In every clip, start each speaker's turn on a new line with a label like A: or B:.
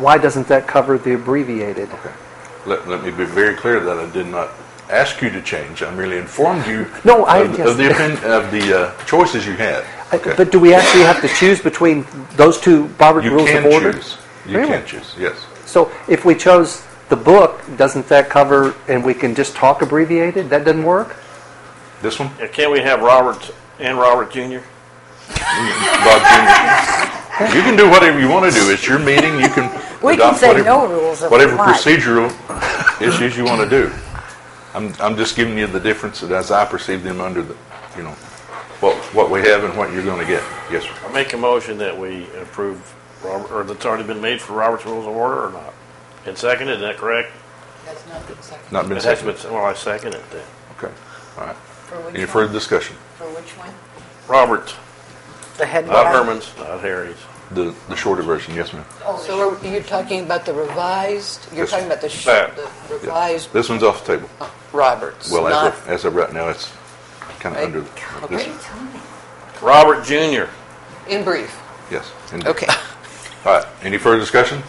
A: why doesn't that cover the abbreviated? Uh,
B: Let, let me be very clear that I did not ask you to change. I merely informed you
A: No, I-
B: of, of the,
A: yes.
B: opinion, of the uh, choices you had.
A: I- But do we actually have to choose between those two Robert
B: you
A: Rules
B: can
A: of Order?
B: choose. You
A: Really?
B: can choose, yes.
A: So if we chose the book, doesn't that cover, and we can just talk abbreviated? That doesn't work?
B: This one?
C: Yeah, Can't Uh, we have Roberts and Robert Jr.?
B: Bob Jr. You can do whatever you want to do. It's your meeting. You can
D: We can
B: adopt
D: say
B: whatever,
D: no rules if we
B: whatever
D: like.
B: procedural issues you want to do. I'm, I'm just giving you the difference that as I perceive them under the, you know, what what we have and what you're going to get. Yes, sir.
C: I make a motion that we approve, Robert, or that's already been made for Robert's Rules of Order or not? And seconded, is that correct?
E: That's not been seconded.
B: Not been
C: It has
B: seconded.
C: been, well, I second it then.
B: Okay. All right.
E: For which
B: Any
E: one?
B: further discussion?
E: For which one?
C: Roberts,
D: The head
C: not
D: one.
C: Herman's, not Harry's.
B: The the shorter version. Yes, ma'am.
E: So are you talking about the revised, you're
B: Yes. Uh,
E: talking about the sh-
C: That.
E: the
B: Yeah.
E: revised
B: This one's off the table.
E: Roberts,
B: Well,
E: not...
B: as of, as of right now, it's kind of
E: Right.
B: under. This,
E: Okay,
C: Robert Jr.
E: in brief,
B: yes. indeed.
E: okay.
B: All right, any further discussion?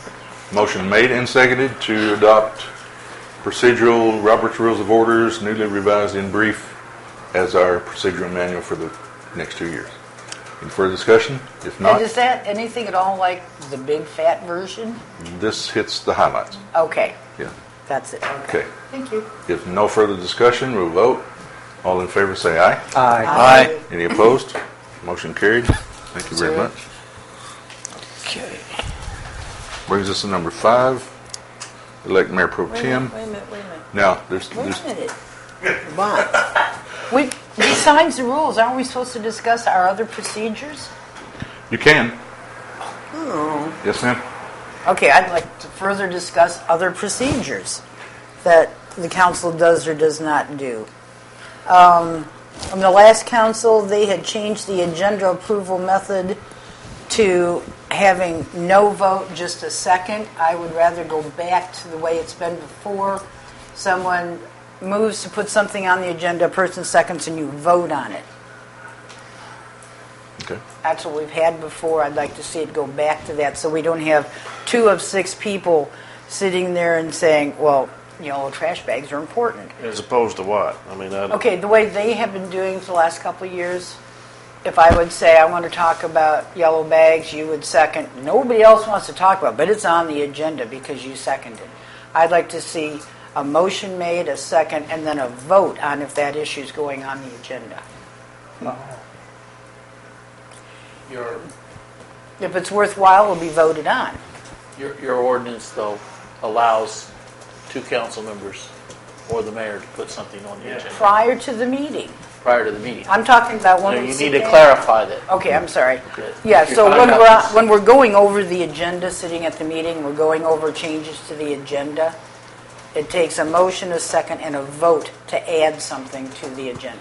B: Motion made and seconded to adopt procedural Robert's Rules of Orders newly revised in brief as our procedural manual for the next two years. Any further discussion? If
D: And
B: not,
D: is that anything at all like the big fat version?
B: this hits the highlights.
D: Okay,
B: Yeah,
D: that's it. Okay.
B: okay.
D: Thank you.
B: If no further discussion, we'll vote. All in favor, say aye.
A: Aye.
C: Aye.
B: Any opposed? Motion carried. Thank you very
E: Zero.
B: much. Brings us to number five, elect Mayor Pro
D: Wait a minute,
B: Tem.
D: wait a minute, wait a minute.
B: Now, there's,
D: Wait
B: there's
D: a minute. What? We, besides the rules, aren't we supposed to discuss our other procedures?
B: You can.
D: Oh.
B: Yes, ma'am.
D: Okay, I'd like to further discuss other procedures that the council does or does not do. Um, From the last council, they had changed the agenda approval method to having no vote, just a second. I would rather go back to the way it's been before. Someone moves to put something on the agenda, a person seconds, and you vote on it.
B: Okay.
D: That's what we've had before. I'd like to see it go back to that, so we don't have two of six people sitting there and saying, well, you know, trash bags are important.
C: As opposed to what? I mean, I
D: Okay, the way they have been doing for the last couple of years, if I would say I want to talk about yellow bags, you would second. Nobody else wants to talk about, it, but it's on the agenda because you seconded. I'd like to see a motion made, a second, and then a vote on if that issue's going on the agenda.
F: Your,
D: If it's worthwhile, it'll be voted on.
F: your, your ordinance, though, allows two council members or the mayor to put something on the agenda
D: Prior to the meeting.
F: prior to the meeting.
D: I'm talking about
F: So
D: when we
F: you
D: sit
F: need to
D: down.
F: clarify that.
D: Okay, I'm sorry.
F: Okay.
D: Yeah, so
F: You're
D: when
F: fine.
D: we're, when we're going over the agenda, sitting at the meeting, we're going over changes to the agenda, it takes a motion, a second, and a vote to add something to the agenda.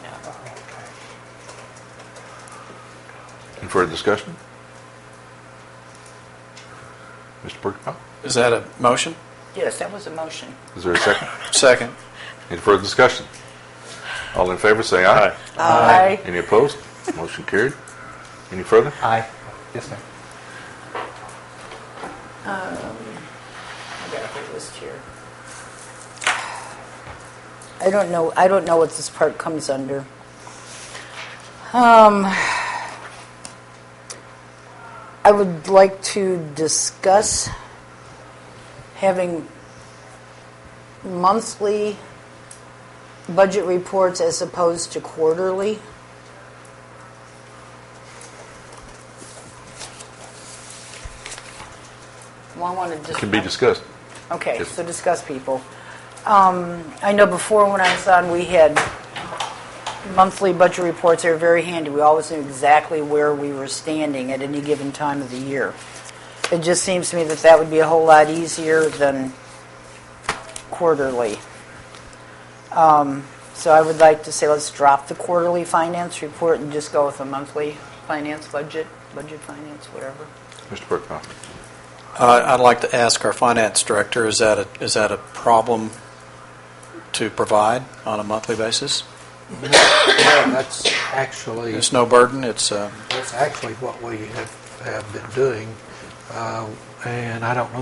B: Any further discussion? Mr. Perkoff,
G: Is that a motion?
D: Yes, that was a motion.
B: oh, is there a second?
G: Second.
B: Any further discussion? All in favor, say aye.
C: Aye.
D: Aye.
B: Any opposed? Motion carried. Any further?
A: Aye. Yes, ma'am.
D: I got a whole list here. I don't know, I don't know what this part comes under. Um, I would like to discuss having monthly budget reports as opposed to quarterly. Well, I want to
B: It
D: discuss.
B: Can be discussed.
D: Okay,
B: Yes.
D: so discuss people. Um, I know before when I was on, we had monthly budget reports. They were very handy. We always knew exactly where we were standing at any given time of the year. It just seems to me that that would be a whole lot easier than quarterly. Um, So I would like to say, let's drop the quarterly finance report and just go with a monthly finance budget, budget finance, whatever.
B: Mr. Perkoff,
G: Uh, I'd like to ask our finance director, is that, a, is that a problem to provide on a monthly basis?
H: No, that's actually,
G: It's no burden, it's, uh,
H: that's actually what we have, have been doing. Uh, And I don't know